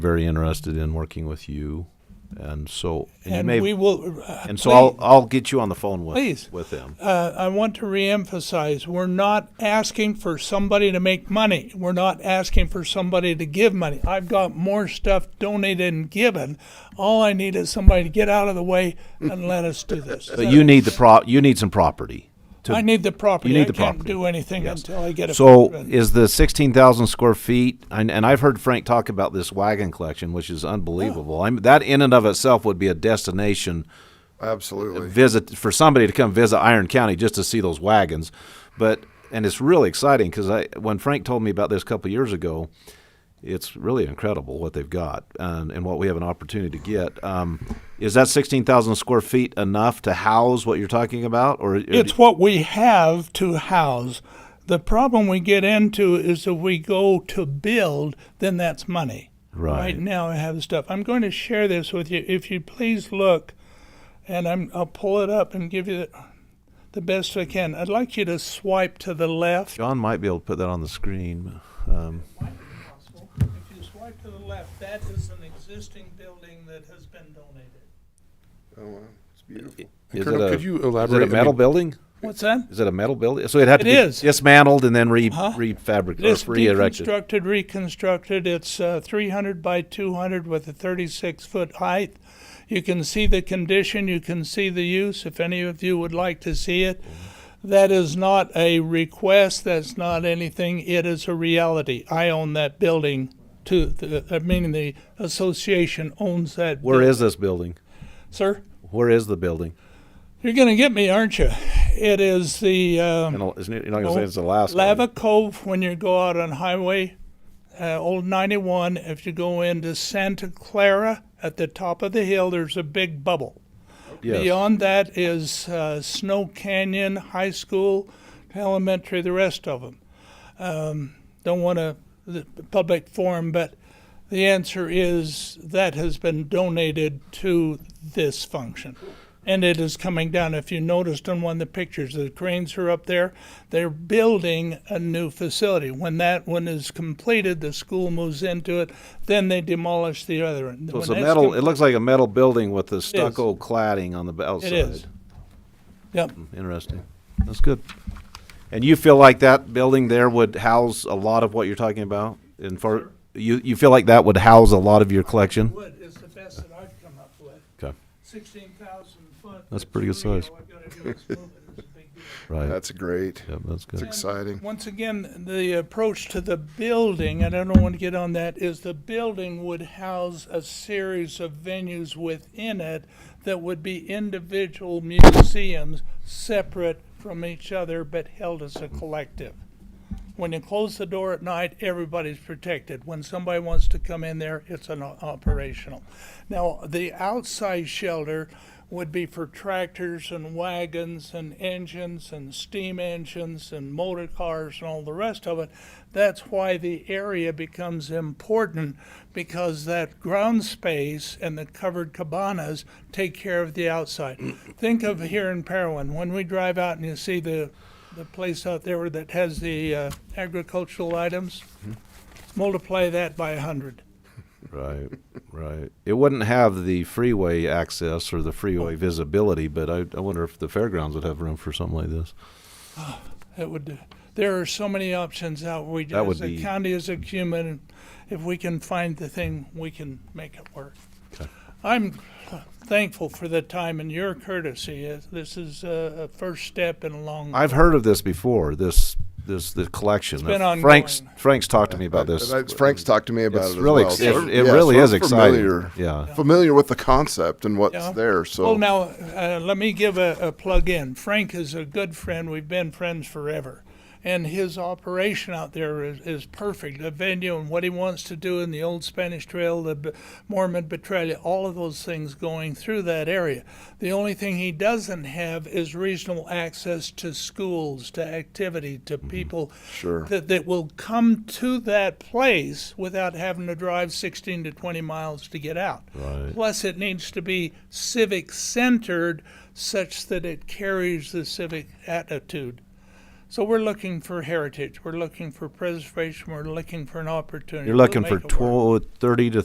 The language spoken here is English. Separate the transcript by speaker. Speaker 1: very interested in working with you, and so and, you
Speaker 2: And
Speaker 1: may,
Speaker 2: we will. uh,
Speaker 1: and so I'll
Speaker 2: please,
Speaker 1: I'll get you on the phone with
Speaker 2: Please.
Speaker 1: with them.
Speaker 2: Uh, I want to reemphasize: we're not asking for somebody to make money. We're not asking for somebody to give money. I've got more stuff donated and given. All I need is somebody to get out of the way and let us do this.
Speaker 1: But you need the pro you need some property. To,
Speaker 2: I need the property.
Speaker 1: You need
Speaker 2: I
Speaker 1: the
Speaker 2: can't
Speaker 1: property.
Speaker 2: do anything until I get a.
Speaker 1: so
Speaker 2: permit.
Speaker 1: is the sixteen thousand square feet, and, and I've heard Frank talk about this wagon collection, which is unbelievable. I'm, that in and of itself would be a destination
Speaker 3: Absolutely.
Speaker 1: visit for somebody to come visit Iron County just to see those wagons. But and it's really exciting because I when Frank told me about this a couple years ago, it's really incredible what they've got and, and what we have an opportunity to get. Um, is that sixteen thousand square feet enough to house what you're talking about, or or
Speaker 2: It's what we have to house. The problem we get into is if we go to build, then that's money.
Speaker 1: Right.
Speaker 2: now, I have stuff. I'm going to share this with you. If you please look, and I'm, I'll pull it up and give you the, the best I can. I'd like you to swipe to the left.
Speaker 1: John might be able to put that on the screen. Um,
Speaker 2: If you swipe to the left, that is an existing building that has been donated.
Speaker 3: Oh, wow. It's beautiful.
Speaker 1: is
Speaker 4: Colonel,
Speaker 1: it a,
Speaker 4: could you
Speaker 1: is it a
Speaker 4: elaborate? I
Speaker 1: metal
Speaker 4: mean,
Speaker 1: building?
Speaker 2: What's that?
Speaker 1: Is it a metal building? So it'd have to
Speaker 2: It
Speaker 1: be
Speaker 2: is.
Speaker 1: dismantled and then re
Speaker 2: Uh-huh.
Speaker 1: refabricated,
Speaker 2: It is
Speaker 1: or re-erected.
Speaker 2: deconstructed, reconstructed. It's uh, 300 by 200 with a 36 foot height. You can see the condition, you can see the use if any of you would like to see it. That is not a request, that's not anything, it is a reality. I own that building to the, I mean the association owns that.
Speaker 1: Where
Speaker 2: buil-
Speaker 1: is this building?
Speaker 2: Sir,
Speaker 1: Where is the building?
Speaker 2: you're going to get me, aren't you? It is the um,
Speaker 1: And Al- isn't it- you're not gonna say it's Alaska.
Speaker 2: Lava Cove, when you go out on Highway uh, Old 91, if you go into Santa Clara at the top of the hill, there's a big bubble.
Speaker 1: Yes.
Speaker 2: Beyond that is uh, Snow Canyon High School, elementary, the rest of them. Um, don't want to the public forum, but the answer is that has been donated to this function. And it is coming down. If you noticed on one of the pictures, the cranes are up there. They're building a new facility. When that one is completed, the school moves into it. Then they demolish the other one.
Speaker 1: So it's a
Speaker 2: When that's
Speaker 1: metal.
Speaker 2: com-
Speaker 1: It looks like a metal building with the stucco cladding on the b- outside.
Speaker 2: is.
Speaker 1: Hmm.
Speaker 2: Yep.
Speaker 1: Interesting. That's good. And you feel like that building there would house a lot of what you're talking about? And for you, you feel like that would house a lot of your collection?
Speaker 2: Wood is the best that I've come up with.
Speaker 1: Okay.
Speaker 2: Sixteen thousand foot.
Speaker 1: That's pretty good
Speaker 2: studio,
Speaker 1: size.
Speaker 2: I've gotta do is move it. It's a big deal.
Speaker 1: Right.
Speaker 3: That's great.
Speaker 1: Yep, that's good.
Speaker 3: Exciting.
Speaker 2: Once again, the approach to the building, and I don't want to get on that, is the building would house a series of venues within it that would be individual museums, separate from each other, but held as a collective. When you close the door at night, everybody's protected. When somebody wants to come in there, it's an o- operational. Now, the outside shelter would be for tractors and wagons and engines and steam engines and motor cars and all the rest of it. That's why the area becomes important because that ground space and the covered cabanas take care of the outside. Think of here in Parowan, when we drive out and you see the the place out there that has the uh, agricultural items,
Speaker 1: Mm-hmm.
Speaker 2: multiply that by 100.
Speaker 1: Right, right. It wouldn't have the freeway access or the
Speaker 2: Oh.
Speaker 1: freeway visibility, but I, I wonder if the fairgrounds would have room for something like this.
Speaker 2: That would, there are so many options out, we,
Speaker 1: That would
Speaker 2: as a
Speaker 1: be-
Speaker 2: county, as a human, if we can find the thing, we can make it work. I'm thankful for the time and your courtesy. Uh, This is a, a first step in a long.
Speaker 1: I've heard of this before. This this the collection.
Speaker 2: been
Speaker 1: Frank's
Speaker 2: ongoing.
Speaker 1: Frank's talked to me about this.
Speaker 3: And I- Frank's talked to me about
Speaker 1: It's
Speaker 3: it as
Speaker 1: really,
Speaker 3: well.
Speaker 1: ex-
Speaker 3: so-
Speaker 1: it, it
Speaker 3: yeah,
Speaker 1: really
Speaker 3: so
Speaker 1: is
Speaker 3: I'm
Speaker 1: exciting.
Speaker 3: familiar-
Speaker 1: Yeah.
Speaker 3: Familiar with the concept and what's
Speaker 2: Yeah.
Speaker 3: there, so.
Speaker 2: Well, now, uh, let me give a, a plug in. Frank is a good friend. We've been friends forever. And his operation out there is, is perfect. The venue and what he wants to do in the Old Spanish Trail, the B- Mormon Betrayal, all of those things going through that area. The only thing he doesn't have is reasonable access to schools, to activity, to people
Speaker 3: Sure.
Speaker 2: that, that will come to that place without having to drive 16 to 20 miles to get out.
Speaker 1: Right.
Speaker 2: Plus, it needs to be civic centered such that it carries the civic attitude. So we're looking for heritage, we're looking for preservation, we're looking for an opportunity.
Speaker 1: You're
Speaker 2: We'll
Speaker 1: looking for
Speaker 2: make it work.
Speaker 1: 12, 30 to